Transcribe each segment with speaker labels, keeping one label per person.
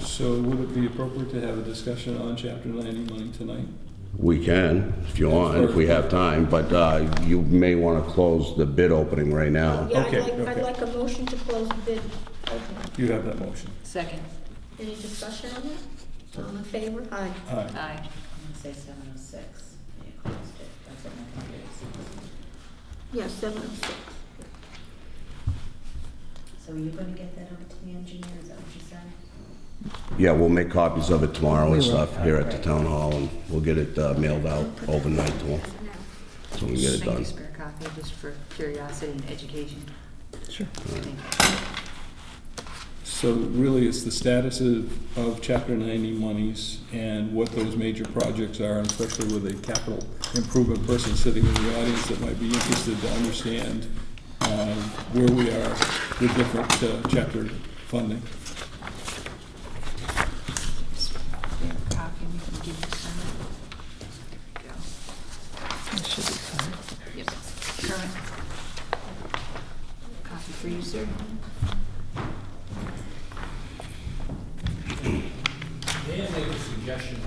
Speaker 1: So would it be appropriate to have a discussion on chapter ninety money tonight?
Speaker 2: We can, if you want, if we have time, but uh, you may want to close the bid opening right now.
Speaker 3: Yeah, I'd
Speaker 1: Okay,
Speaker 3: like, I'd
Speaker 1: okay.
Speaker 3: like a motion to close the bid opening.
Speaker 1: You have that motion.
Speaker 4: Second,
Speaker 3: Any discussion on that? All in favor? Aye.
Speaker 1: Aye.
Speaker 4: aye.
Speaker 5: I'm gonna say seven oh six. Yeah, closed it. That's what my computer says.
Speaker 3: Yes, seven oh six.
Speaker 5: So are you gonna get that over to the engineer, is that what you said?
Speaker 2: Yeah, we'll make copies of it tomorrow and stuff here at the
Speaker 5: Right.
Speaker 2: town hall, and we'll get it uh, mailed out overnight to them, so we can get it
Speaker 4: Make
Speaker 2: done.
Speaker 4: a spare copy just for curiosity and education.
Speaker 1: So really, it's the status of, of chapter ninety monies and what those major projects are, and especially with a capital improvement person sitting in the audience that might be interested to understand, um, where we are with different, uh, chapter funding.
Speaker 4: Spare copy, we can give you some. There you go. Yep, current. Copy for you, sir.
Speaker 6: May I make a suggestion?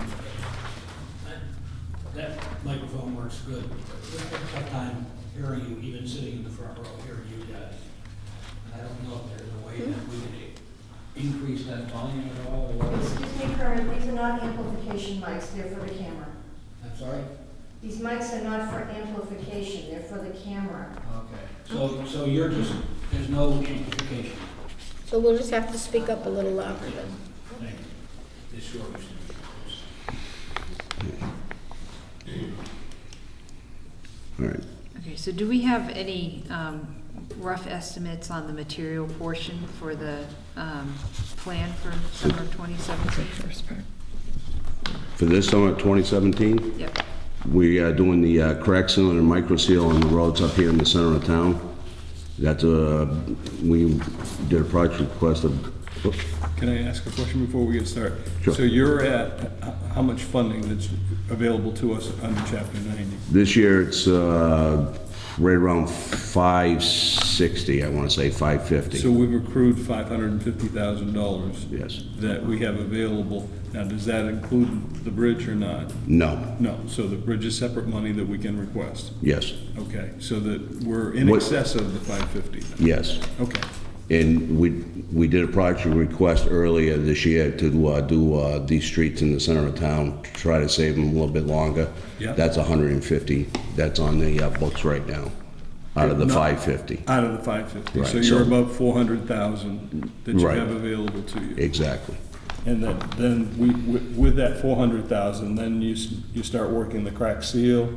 Speaker 6: That- That microphone works good. Tough time hearing you, even sitting in the front row, hearing you guys. And I don't know if there's a way that we could increase that volume at all, or what.
Speaker 7: Excuse me, Karen, these are not amplification mics, they're for the camera.
Speaker 6: I'm sorry?
Speaker 7: These mics are not for amplification, they're for the camera.
Speaker 6: Okay. So, so you're just, there's no amplification.
Speaker 3: So we'll just have to speak up a little louder then.
Speaker 6: Thank you. This works.
Speaker 2: All right.
Speaker 4: Okay, so do we have any um, rough estimates on the material portion for the um, plan for summer of 2017?
Speaker 2: For this summer, 2017,
Speaker 4: Yep,
Speaker 2: we are doing the uh, crack seal and micro seal on the roads up here in the center of town. That's a, we did a project request of, oops,
Speaker 1: Can I ask a question before we get started?
Speaker 2: Sure.
Speaker 1: So you're at, h- how much funding that's available to us under chapter ninety?
Speaker 2: This year, it's uh, right around 560, I want to say,
Speaker 1: So
Speaker 2: 550.
Speaker 1: we've accrued five hundred and fifty thousand dollars
Speaker 2: Yes.
Speaker 1: that we have available. Now, does that include the bridge or not?
Speaker 2: No,
Speaker 1: No, so the bridge is separate money that we can request.
Speaker 2: yes,
Speaker 1: Okay, so that we're in
Speaker 2: What-
Speaker 1: excess of the five fifty.
Speaker 2: yes.
Speaker 1: Okay,
Speaker 2: And we, we did a project request earlier this year to uh, do uh, these streets in the center of town, try to save them a little bit longer.
Speaker 1: Yeah.
Speaker 2: That's 150, that's on the uh, books right now, out of the
Speaker 1: No.
Speaker 2: 550.
Speaker 1: out of the five fifty. So
Speaker 2: Right,
Speaker 1: you're
Speaker 2: so-
Speaker 1: above four hundred thousand that you
Speaker 2: Right.
Speaker 1: have available to you.
Speaker 2: Exactly,
Speaker 1: And then, then we, wi- with that four hundred thousand, then you, s- you start working the crack seal.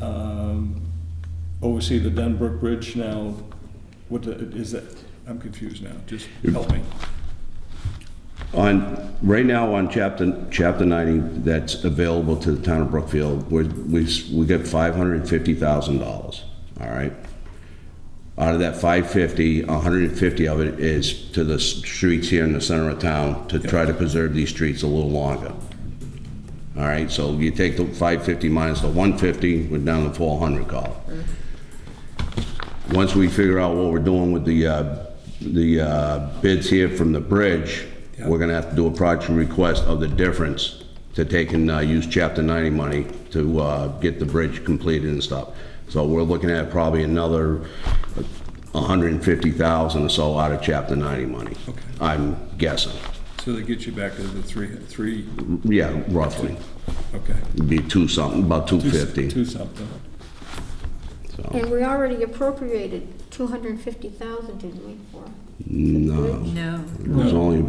Speaker 1: Um, Oversee the Dunbrook Bridge now, what the- is that, I'm confused now, just help me.
Speaker 2: On, right now on chapter, chapter 90, that's available to the town of Brookfield, we're- we, s- we get $550,000, all right? Out of that 550, 150 of it is to the s- streets here in the center of town to try to preserve these streets a little longer. All right, so you take the 550 minus the 150, we're down to 400 call.
Speaker 1: Mm-hmm.
Speaker 2: Once we figure out what we're doing with the, uh, the uh, bids here from the bridge, we're gonna have to do a project request of the difference to take and uh, use Chapter 90 money to uh, get the bridge completed and stuff. So we're looking at probably another 150,000 or so out of Chapter 90 money.
Speaker 1: Okay.
Speaker 2: I'm guessing,
Speaker 1: So they get you back to the three, three,
Speaker 2: yeah, roughly,
Speaker 1: okay.
Speaker 2: It'd be two something, about
Speaker 1: Two s-
Speaker 2: 250,
Speaker 1: Two something.
Speaker 2: so,
Speaker 3: And we already appropriated two hundred and fifty thousand, didn't we, for?
Speaker 2: no,
Speaker 4: no.
Speaker 2: it was only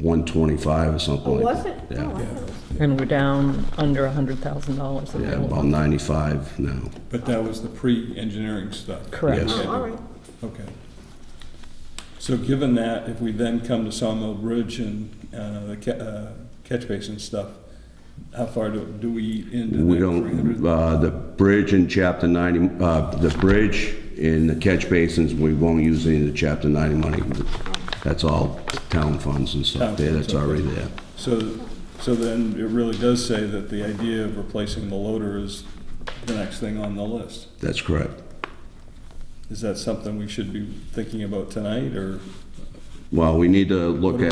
Speaker 2: 125 or
Speaker 3: Oh,
Speaker 2: something like
Speaker 3: was
Speaker 2: that.
Speaker 3: it?
Speaker 2: Yeah.
Speaker 3: Oh, I thought it was-
Speaker 8: And we're down under a hundred thousand dollars
Speaker 2: Yeah,
Speaker 8: available.
Speaker 2: about 95 now.
Speaker 1: But that was the pre-engineering stuff.
Speaker 8: Correct.
Speaker 2: Yes.
Speaker 3: Oh, all right.
Speaker 1: Okay. So given that, if we then come to Sawmill Bridge and uh, the ca- uh, catch basin stuff, how far do do we eat into
Speaker 2: We
Speaker 1: that three
Speaker 2: don't,
Speaker 1: hundred?
Speaker 2: uh, the bridge in chapter 90, uh, the bridge in the catch basins, we won't use any of the chapter 90 money. That's all town funds and
Speaker 1: Town
Speaker 2: stuff there,
Speaker 1: funds,
Speaker 2: that's
Speaker 1: okay.
Speaker 2: already there.
Speaker 1: So, so then it really does say that the idea of replacing the loader is the next thing on the list.
Speaker 2: That's correct.
Speaker 1: Is that something we should be thinking about tonight, or?
Speaker 2: Well, we need to look at